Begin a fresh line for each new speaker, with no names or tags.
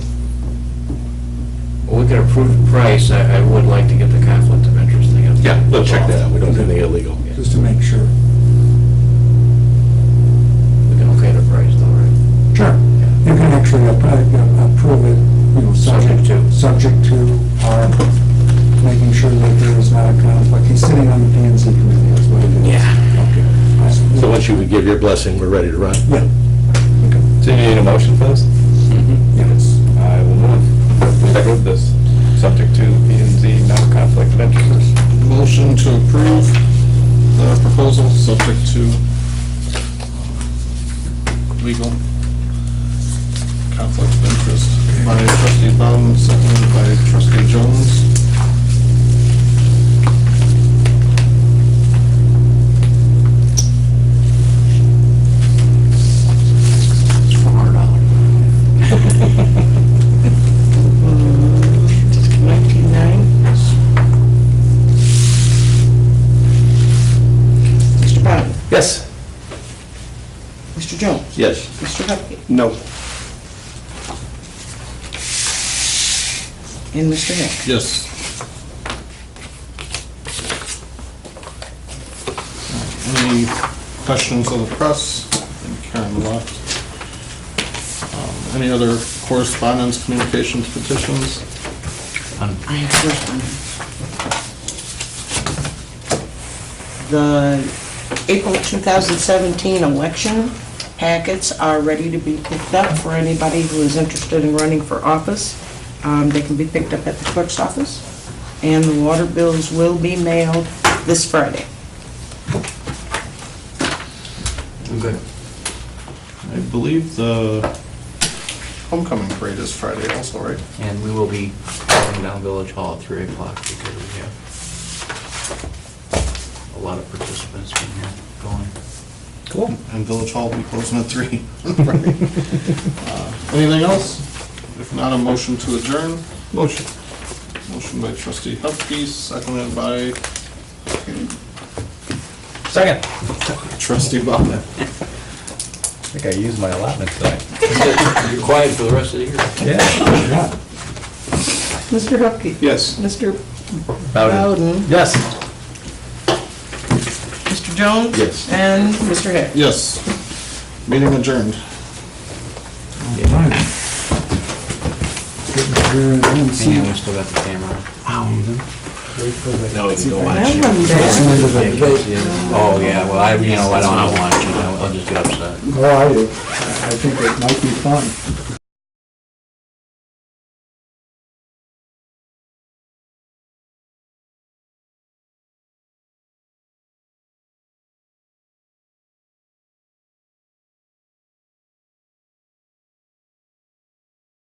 can approve the price, I, I would like to get the conflict of interest thing up.
Yeah, we'll check that out, we don't do anything illegal.
just to make sure.
We can okay the price though, right?
Sure. You can actually appro- uh, approve it, you know, subject
Subject to.
to, subject to our making sure that there is not a conflict. He's sitting on the P and Z committee, that's what it is. Okay.
So once you give your blessing, we're ready to run.
Yeah, Mm-hmm.
So you need a motion for this?
yes.
I will move. I wrote this, subject to P and Z, no conflict of interest.
Motion to approve the proposal, subject to uh, legal conflict of interest by trustee Bowden, seconded by trustee Jones.
It's four hundred dollars.
Nineteen-nine. Mr. Bowden?
Yes?
Mr. Jones?
Yes.
Mr. Hupkey?
No.
And Mr. Hill?
Yes. Any questions of the press? I think Karen left. Um, Any other correspondence, communications, petitions?
I have correspondence. The April 2017 election packets are ready to be picked up for anybody who is interested in running for office. Um, They can be picked up at the clerk's office, and the water bills will be mailed this Friday.
I believe the homecoming parade is Friday also, right?
And we will be going down Village Hall at three o'clock because we have a lot of participants in here going.
Cool.
And Village Hall will be closing at three. Friday. Uh, Anything else? If not, a motion to adjourn.
Motion.
Motion by trustee Hupkey, seconded by
Second.
trustee Bowden.
I think I used my allotment tonight.
You're quiet for the rest of the year.
Yeah.
Mr. Hupkey.
Yes.
Mr.
Bowden.
Bowden.
Yes.
Mr. Jones.
Yes.
And Mr. Hill.
Yes. Meeting adjourned.
All right. Getting clear and then see
Hang on, we still got the camera.
No, it's no
That one day.
Oh, yeah, well, I, you know, I don't want to watch it, I'll I'll just get upset.
Oh, I do. I I think it might be fun.